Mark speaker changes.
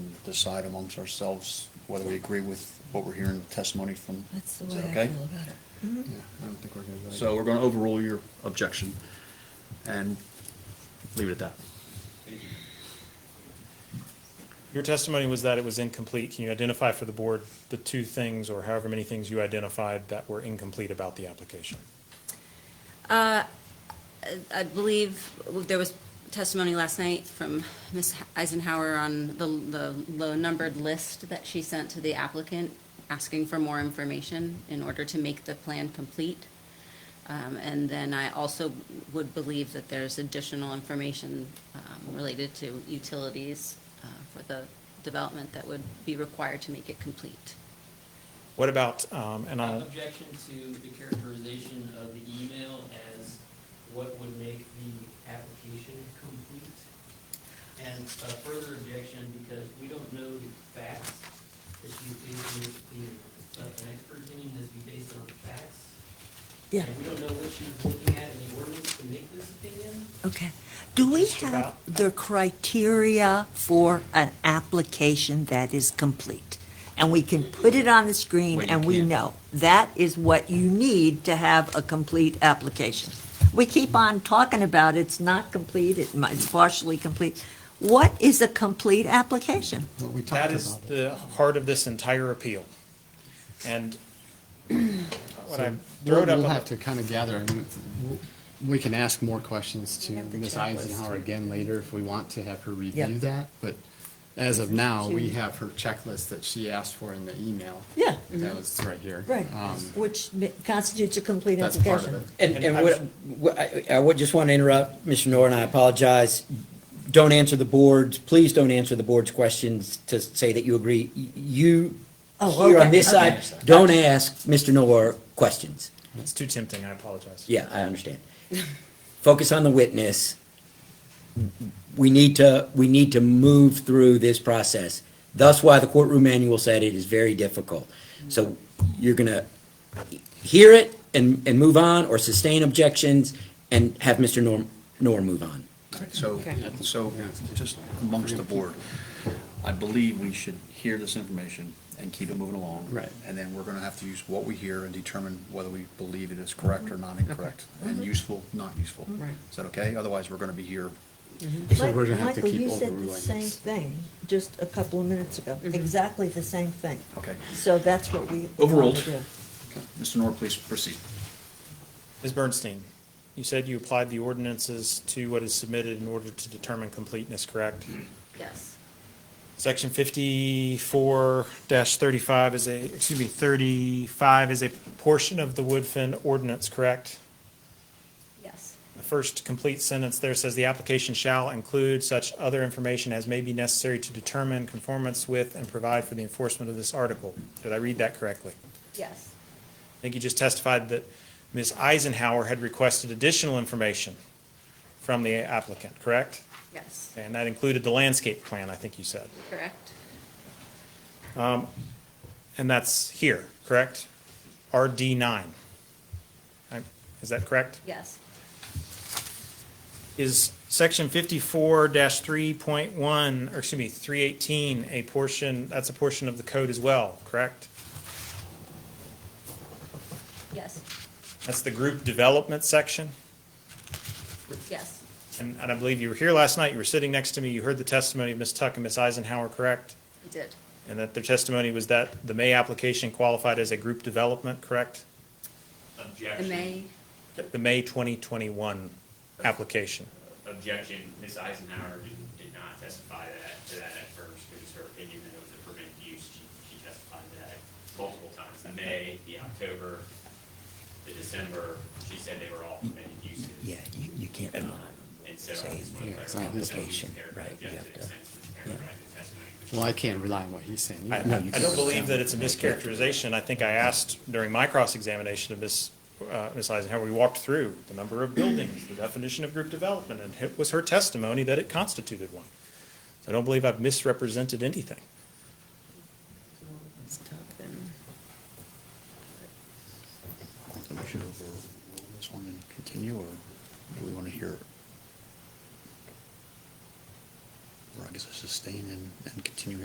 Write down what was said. Speaker 1: decide amongst ourselves whether we agree with what we're hearing testimony from.
Speaker 2: That's the
Speaker 1: Is
Speaker 2: way
Speaker 1: that
Speaker 2: I
Speaker 1: okay?
Speaker 2: feel about it.
Speaker 3: Yeah, I don't think we're gonna. really-
Speaker 1: So we're gonna overrule your objection and leave it at that.
Speaker 4: Your testimony was that it was incomplete. Can you identify for the board the two things or however many things you identified that were incomplete about the application?
Speaker 5: Uh, I believe there was testimony last night from Ms. Eisenhower on the, the low-numbered list that she sent to the applicant, asking for more information in order to make the plan complete. Um, and then I also would believe that there's additional information, um, related to utilities, uh, for the development that would be required to make it complete.
Speaker 4: What about, um, and I'll,
Speaker 6: Objection to the characterization of the email as what would make the application complete. And a further objection because we don't know the facts that you, the, the, uh, an expert opinion has to be based on facts.
Speaker 2: Yeah,
Speaker 6: And we don't know what she was looking at in the ordinance to make this opinion.
Speaker 2: okay. Do we
Speaker 4: Mr.
Speaker 2: have
Speaker 4: Bauer?
Speaker 2: the criteria for an application that is complete? And we can put it on the screen
Speaker 1: Well, you
Speaker 2: and we
Speaker 1: can't.
Speaker 2: know. That is what you need to have a complete application. We keep on talking about it's not complete, it might- it's partially complete. What is a complete application?
Speaker 3: Well, we
Speaker 4: that
Speaker 3: talked
Speaker 4: is
Speaker 3: about it.
Speaker 4: the heart of this entire appeal. And when I
Speaker 3: So
Speaker 4: throw
Speaker 3: we'll,
Speaker 4: it up,
Speaker 3: we'll
Speaker 4: on
Speaker 3: have
Speaker 4: the-
Speaker 3: to kind of gather, I mean, w- we can ask more questions to
Speaker 2: We have the
Speaker 3: Ms.
Speaker 2: checklist.
Speaker 3: Eisenhower again later if we want to have her
Speaker 2: Yeah.
Speaker 3: review that, but as of now,
Speaker 2: She-
Speaker 3: we have her checklist that she asked for in the email.
Speaker 2: Yeah.
Speaker 3: That was right here. Um,
Speaker 2: Which constitutes a complete
Speaker 3: That's part of
Speaker 2: application.
Speaker 4: And
Speaker 7: And, and
Speaker 4: I
Speaker 7: what, what- I, I would just want to interrupt, Mr. Nor, and I apologize. Don't answer the board's, please don't answer the board's questions to say that you agree. Y- You,
Speaker 2: Oh,
Speaker 7: here
Speaker 2: okay,
Speaker 7: on this side,
Speaker 2: okay.
Speaker 7: don't ask Mr. Nor questions.
Speaker 4: it's too tempting, I apologize.
Speaker 7: Yeah, I understand. Focus on the witness. We need to, we need to move through this process. That's why the courtroom manual said it is very difficult. So you're gonna hear it and, and move on, or sustain objections and have Mr. Norm, Norm move on.
Speaker 1: So, so just amongst the board, I believe we should hear this information and keep it moving along.
Speaker 3: Right.
Speaker 1: And then we're gonna have to use what we hear and determine whether we believe it is correct or not incorrect,
Speaker 2: Mm-hmm.
Speaker 1: and useful, not useful.
Speaker 3: Right.
Speaker 1: Is that okay? Otherwise, we're gonna be here
Speaker 3: So we're gonna have to
Speaker 2: Michael, you said
Speaker 3: keep
Speaker 2: the
Speaker 3: overruling
Speaker 2: same
Speaker 3: this.
Speaker 2: thing just a couple of minutes ago, exactly the same thing.
Speaker 1: Okay.
Speaker 2: So that's what we.
Speaker 1: Overruled.
Speaker 2: want to do.
Speaker 1: Mr. Nor, please proceed.
Speaker 4: Ms. Bernstein, you said you applied the ordinances to what is submitted in order to determine completeness, correct?
Speaker 5: Yes.
Speaker 4: Section fifty-four thirty-five is a, excuse me, thirty-five is a portion of the Woodfin ordinance, correct?
Speaker 5: Yes.
Speaker 4: The first complete sentence there says the application shall include such other information as may be necessary to determine conformance with and provide for the enforcement of this article. Did I read that correctly?
Speaker 5: Yes.
Speaker 4: I think you just testified that Ms. Eisenhower had requested additional information from the applicant, correct?
Speaker 5: Yes.
Speaker 4: And that included the landscape plan, I think you said.
Speaker 5: Correct.
Speaker 4: And that's here, correct? RD nine. I- Is that correct?
Speaker 5: Yes.
Speaker 4: Is section fifty-four three point one, or excuse me, three eighteen, a portion, that's a portion of the code as well, correct?
Speaker 5: Yes.
Speaker 4: That's the group development section?
Speaker 5: Yes.
Speaker 4: And, and I believe you were here last night, you were sitting next to me, you heard the testimony of Ms. Tuck and Ms. Eisenhower, correct?
Speaker 5: I did.
Speaker 4: And that their testimony was that the May application qualified as a group development, correct?
Speaker 8: Objection.
Speaker 5: May.
Speaker 4: The May twenty twenty-one application.
Speaker 8: Objection, Ms. Eisenhower did- did not testify that, to that at first, it was her opinion that it was a permitted use, she, she testified to that multiple times, the May, the October, the December, she said they were all permitted uses.
Speaker 7: Yeah, you, you can't
Speaker 8: Um,
Speaker 7: not.
Speaker 8: And so. I
Speaker 7: Say
Speaker 8: just wanna
Speaker 7: yeah,
Speaker 8: clarify
Speaker 3: it's not
Speaker 8: that
Speaker 3: his
Speaker 8: she
Speaker 7: patient,
Speaker 8: there
Speaker 7: right, you
Speaker 8: objected
Speaker 7: have to-
Speaker 8: extensively to
Speaker 7: yeah.
Speaker 8: characterize the testimony, which
Speaker 3: Well, I can't rely on what he's saying.
Speaker 4: I,
Speaker 3: You-
Speaker 4: I I don't believe that it's a mischaracterization. I think I asked during my cross-examination of Ms., uh, Ms. Eisenhower, we walked through the number of buildings, the definition of group development, and it was her testimony that it constituted one. So I don't believe I've misrepresented anything.
Speaker 1: So we should overrule this one and continue, or do we want to hear? Or I guess sustain and, and continue